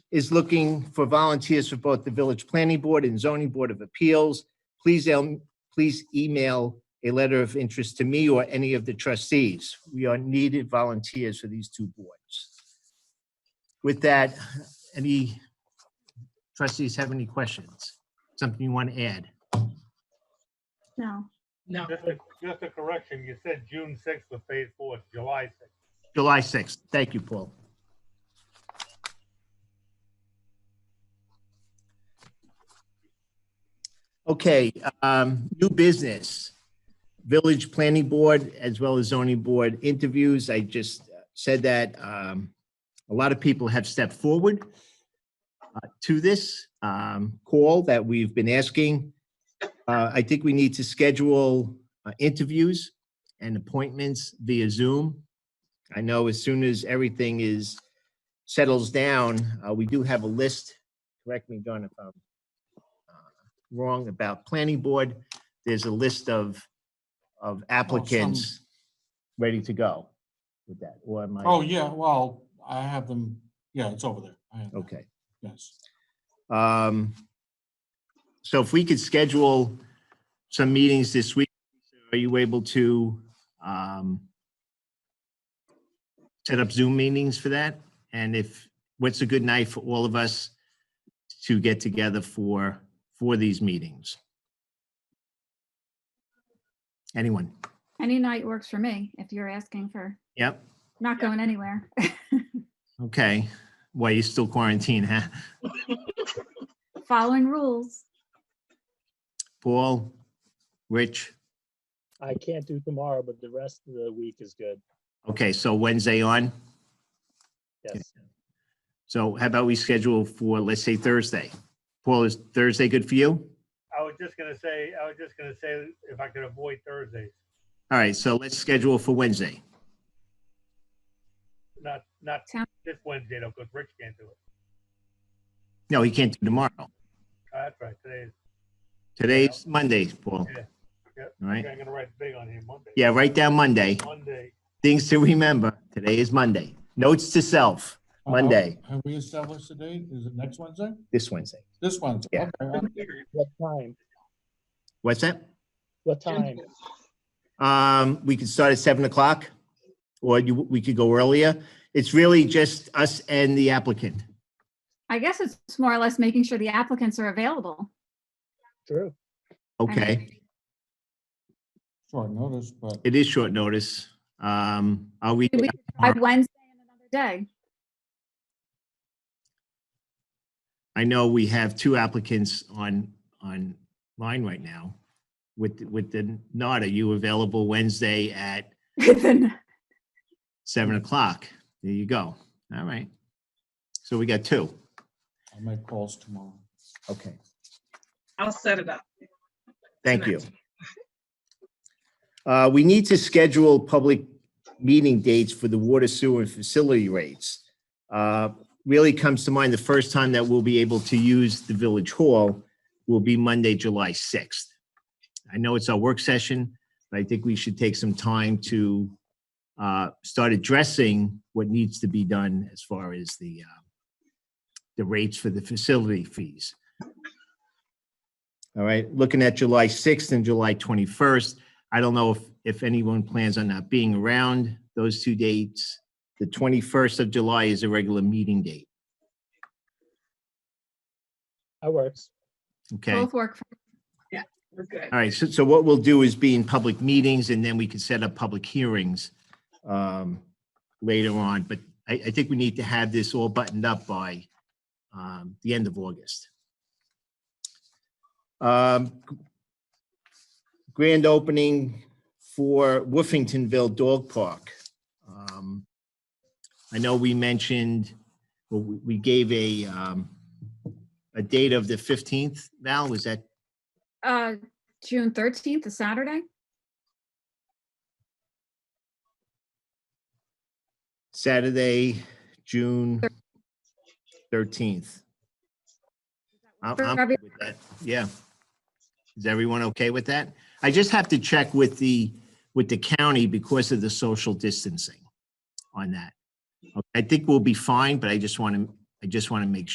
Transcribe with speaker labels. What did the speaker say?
Speaker 1: is looking for volunteers for both the Village Planning Board and Zoning Board of Appeals. Please, um, please email a letter of interest to me or any of the trustees. We are needed volunteers for these two boards. With that, any trustees have any questions? Something you want to add?
Speaker 2: No,
Speaker 3: No,
Speaker 4: Just a, just a correction, you said June sixth for phase four, it's July sixth.
Speaker 1: July 6th. Thank you, Paul. Okay, um, new business. Village Planning Board as well as zoning board interviews. I just said that um, a lot of people have stepped forward uh, to this um, call that we've been asking. Uh, I think we need to schedule uh, interviews and appointments via Zoom. I know as soon as everything is, settles down, uh, we do have a list, correct me, John, if I'm uh, wrong about planning board, there's a list of, of applicants ready to go with that, or am I?
Speaker 5: Oh, yeah, well, I have them, yeah, it's over there. I have that,
Speaker 1: Okay.
Speaker 5: Yes.
Speaker 1: Um, So if we could schedule some meetings this week, are you able to um, set up Zoom meetings for that? And if, what's a good night for all of us to get together for, for these meetings? Anyone?
Speaker 2: any night works for me if you're asking for,
Speaker 1: Yep,
Speaker 2: not going anywhere.
Speaker 1: okay. Well, you're still quarantined, huh?
Speaker 2: Following rules.
Speaker 1: Paul, Rich?
Speaker 4: I can't do tomorrow, but the rest of the week is good,
Speaker 1: Okay, so Wednesday on?
Speaker 4: yes.
Speaker 1: So how about we schedule for, let's say Thursday? Paul, is Thursday good for you?
Speaker 4: I was just gonna say, I was just gonna say if I could avoid Thursdays,
Speaker 1: All right, so let's schedule for Wednesday.
Speaker 4: not, not
Speaker 2: Sound-
Speaker 4: this Wednesday though, because Rich can't do it.
Speaker 1: No, he can't do tomorrow.
Speaker 4: Oh, That's right, today is,
Speaker 1: Today's Monday, Paul.
Speaker 4: Yeah, yeah.
Speaker 1: All right,
Speaker 4: I'm gonna write big on here Monday.
Speaker 1: yeah, write down Monday.
Speaker 4: Monday,
Speaker 1: Things to remember. Today is Monday. Notes to self,
Speaker 5: Uh,
Speaker 1: Monday.
Speaker 5: Have we established the date? Is it next Wednesday?
Speaker 1: this Wednesday.
Speaker 5: This Wednesday?
Speaker 1: Yeah.
Speaker 5: Okay, I'm-
Speaker 6: What time?
Speaker 1: What's that?
Speaker 6: What time?
Speaker 1: Um, we could start at seven o'clock or you, we could go earlier. It's really just us and the applicant.
Speaker 2: I guess it's more or less making sure the applicants are available. I
Speaker 6: True.
Speaker 2: mean,
Speaker 1: Okay,
Speaker 5: Short notice, but
Speaker 1: it is short notice. Um, are we?
Speaker 2: We- By Wednesday and another day.
Speaker 1: I know we have two applicants on, on line right now. With, with the nod, are you available Wednesday at
Speaker 2: Then
Speaker 1: seven o'clock? There you go. All right. So we got two.
Speaker 5: I'll make calls tomorrow.
Speaker 1: Okay.
Speaker 3: I'll set it up.
Speaker 1: Thank you. Uh, we need to schedule public meeting dates for the water sewer and facility rates. Uh, really comes to mind, the first time that we'll be able to use the village hall will be Monday, July 6th. I know it's our work session, but I think we should take some time to uh, start addressing what needs to be done as far as the uh, the rates for the facility fees. All right, looking at July 6th and July 21st, I don't know if, if anyone plans on not being around those two dates. The 21st of July is a regular meeting date,
Speaker 6: That works.
Speaker 1: okay? All
Speaker 2: Both work. for-
Speaker 3: We're good.
Speaker 1: right, so, so what we'll do is be in public meetings and then we can set up public hearings um, later on, but I, I think we need to have this all buttoned up by um, the end of August. Um, grand opening for Woofingtonville Dog Park. Um, I know we mentioned, well, we we gave a, um, a date of the 15th. Val, was that,
Speaker 2: Uh, June thirteenth is Saturday.
Speaker 1: Saturday, June thirteenth. Oh, I'm,
Speaker 2: For
Speaker 1: I'm
Speaker 2: every-
Speaker 1: good with that. Yeah. Is everyone okay with that? I just have to check with the, with the county because of the social distancing on that. I think we'll be fine, but I just want to, I just want to make